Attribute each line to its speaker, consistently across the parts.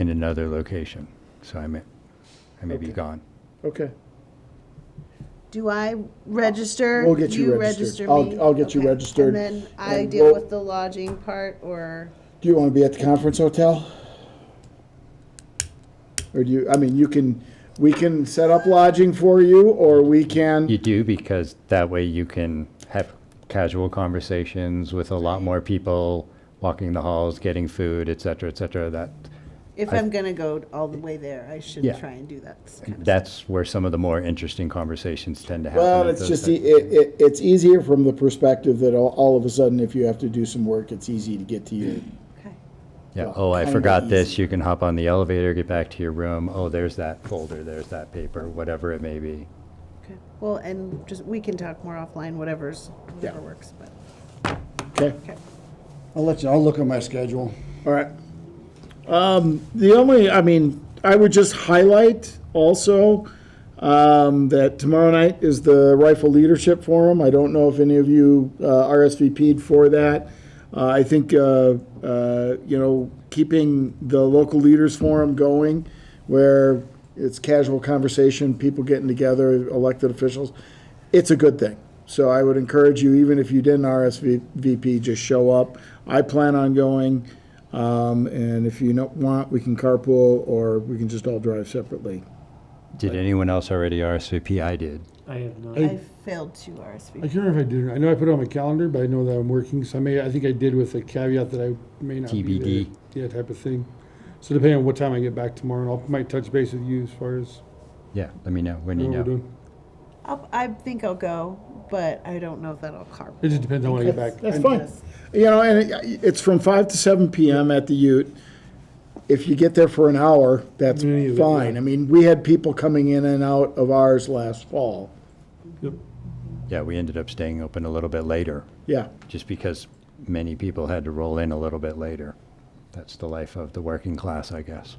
Speaker 1: in another location. So I may, I may be
Speaker 2: Okay.
Speaker 1: gone.
Speaker 2: Okay,
Speaker 3: Do I register?
Speaker 2: We'll get you registered.
Speaker 3: register
Speaker 2: I'll-
Speaker 3: me?
Speaker 2: I'll get you
Speaker 3: Okay.
Speaker 2: registered,
Speaker 3: And then I
Speaker 2: and
Speaker 3: deal
Speaker 2: we'll-
Speaker 3: with the lodging part or,
Speaker 2: do you want to be at the conference hotel? Or do you, I mean, you can, we can set up lodging for you, or we
Speaker 1: You
Speaker 2: can,
Speaker 1: do because that way you can have casual conversations with a lot more people, walking the halls, getting food, et cetera, et cetera. That,
Speaker 3: if
Speaker 1: I-
Speaker 3: I'm gonna go all the way there, I should
Speaker 1: Yeah.
Speaker 3: try and do that.
Speaker 1: that's where some of the more interesting conversations tend to happen.
Speaker 2: well,
Speaker 1: at
Speaker 2: it's
Speaker 1: those
Speaker 2: just, e-
Speaker 1: types of
Speaker 2: it, it, it's easier from the perspective that all, all of a sudden, if you have to do some work, it's easy to get to you.
Speaker 3: Okay.
Speaker 1: Yeah,
Speaker 2: Well,
Speaker 1: oh, I
Speaker 2: kinda
Speaker 1: forgot this,
Speaker 2: easy.
Speaker 1: you can hop on the elevator, get back to your room, oh, there's that folder, there's that paper, whatever it may be.
Speaker 3: Okay. Well, and just, we can talk more offline, whatever's,
Speaker 2: Yeah.
Speaker 3: whatever works, but,
Speaker 2: Okay,
Speaker 3: okay.
Speaker 4: I'll let you, I'll look at my schedule.
Speaker 2: all right. Um, the only, I mean, I would just highlight also, um, that tomorrow night is the Rifle Leadership Forum. I don't know if any of you uh, RSVP'd for that. Uh, I think, uh, uh, you know, keeping the local leaders forum going where it's casual conversation, people getting together, elected officials, it's a good thing. So I would encourage you, even if you didn't RSVP, just show up. I plan on going. Um, and if you don't want, we can carpool or we can just all drive separately.
Speaker 1: Did anyone else already RSVP? I did.
Speaker 5: I have not.
Speaker 3: I failed to
Speaker 4: I
Speaker 3: RSVP.
Speaker 4: can't remember if I did. or not. I know I put it on my calendar, but I know that I'm working, so I may, I think I did with a caveat that I may not be there.
Speaker 1: TBD.
Speaker 4: Yeah, type of thing. So depending on what time I get back tomorrow, and I might touch base with you as far as
Speaker 1: Yeah, let me know when you
Speaker 4: what we're
Speaker 1: know.
Speaker 4: doing.
Speaker 3: I'll, I think I'll go, but I don't know if that'll carve.
Speaker 4: It just depends on when I get back.
Speaker 2: That's fine. You know, and it, it's from five to seven PM at the Ute. If you get there for an hour, that's
Speaker 4: Yeah, yeah,
Speaker 2: fine.
Speaker 4: yeah.
Speaker 2: I mean, we had people coming in and out of ours last fall.
Speaker 4: Yep.
Speaker 1: Yeah, we ended up staying open a little bit later,
Speaker 2: Yeah,
Speaker 1: just because many people had to roll in a little bit later. That's the life of the working class, I guess.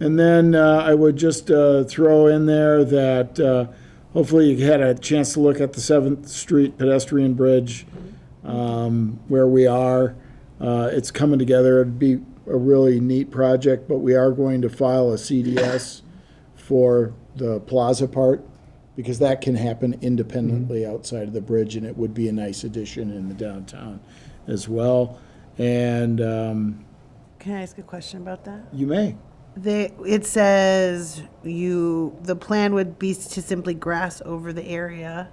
Speaker 2: and then uh, I would just uh, throw in there that uh, hopefully you had a chance to look at the Seventh Street pedestrian bridge um, where we are. Uh, It's coming together. It'd be a really neat project, but we are going to file a CDS for the plaza part because that can happen independently outside of the bridge, and it would be a nice addition in the downtown as well. And um,
Speaker 3: Can I ask a question about that?
Speaker 2: you may.
Speaker 3: They, it says you, the plan would be to simply grass over the area,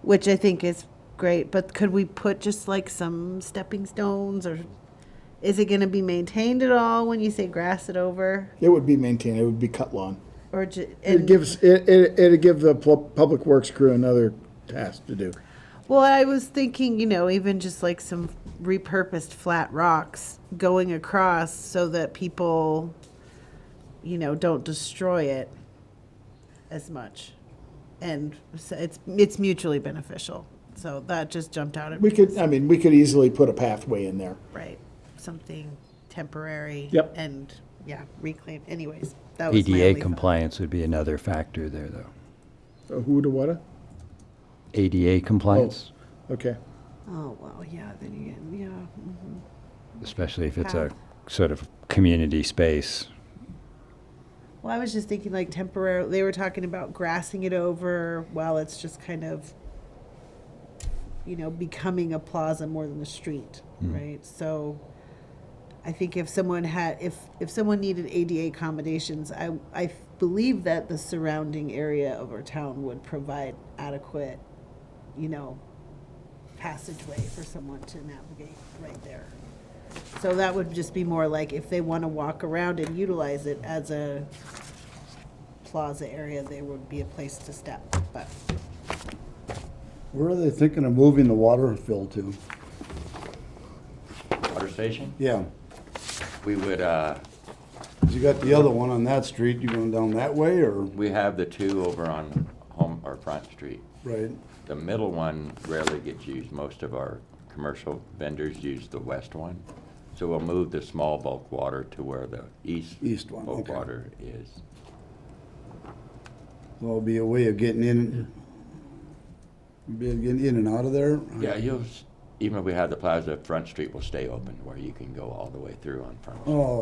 Speaker 3: which I think is great, but could we put just like some stepping stones or is it gonna be maintained at all when you say grass it over?
Speaker 2: It would be maintained. It would be cut lawn.
Speaker 3: Or ju-
Speaker 2: It
Speaker 3: and,
Speaker 2: gives, it, it- it'd give the pl- Public Works crew another task to do.
Speaker 3: well, I was thinking, you know, even just like some repurposed flat rocks going across so that people, you know, don't destroy it as much. And so it's, it's mutually beneficial. So that just jumped out at me.
Speaker 2: We could, I mean, we could easily put a pathway in there.
Speaker 3: Right, something temporary.
Speaker 2: Yep.
Speaker 3: And, yeah, reclaim, anyways, that was my only
Speaker 1: ADA
Speaker 3: thought.
Speaker 1: compliance would be another factor there, though.
Speaker 2: A who to what? a?
Speaker 1: ADA compliance,
Speaker 2: Okay.
Speaker 3: Oh, well, yeah, then you get, yeah.
Speaker 1: especially if it's a sort of community space.
Speaker 3: Well, I was just thinking like temporarily, they were talking about grassing it over while it's just kind of, you know, becoming a plaza more than a street, right? So I think if someone had, if, if someone needed ADA accommodations, I, I f- believe that the surrounding area of our town would provide adequate, you know, passageway for someone to navigate right there. So that would just be more like if they want to walk around and utilize it as a plaza area, there would be a place to step, but.
Speaker 6: Where are they thinking of moving the water fill to?
Speaker 7: water station.
Speaker 6: Yeah,
Speaker 7: We would, uh,
Speaker 6: 'cause you got the other one on that street, you going down that way or?
Speaker 7: we have the two over on Home, or Front Street.
Speaker 6: Right.
Speaker 7: The middle one rarely gets used. Most of our commercial vendors use the west one. So we'll move the small bulk water to where the east.
Speaker 6: East one,
Speaker 7: Bulk
Speaker 6: okay.
Speaker 7: water is.
Speaker 6: So it'll be a way of getting in, be getting in and out of there?
Speaker 7: Yeah, you'll, s- even if we have the plaza, Front Street will stay open where you can go all the way through on Front Street.
Speaker 6: Oh,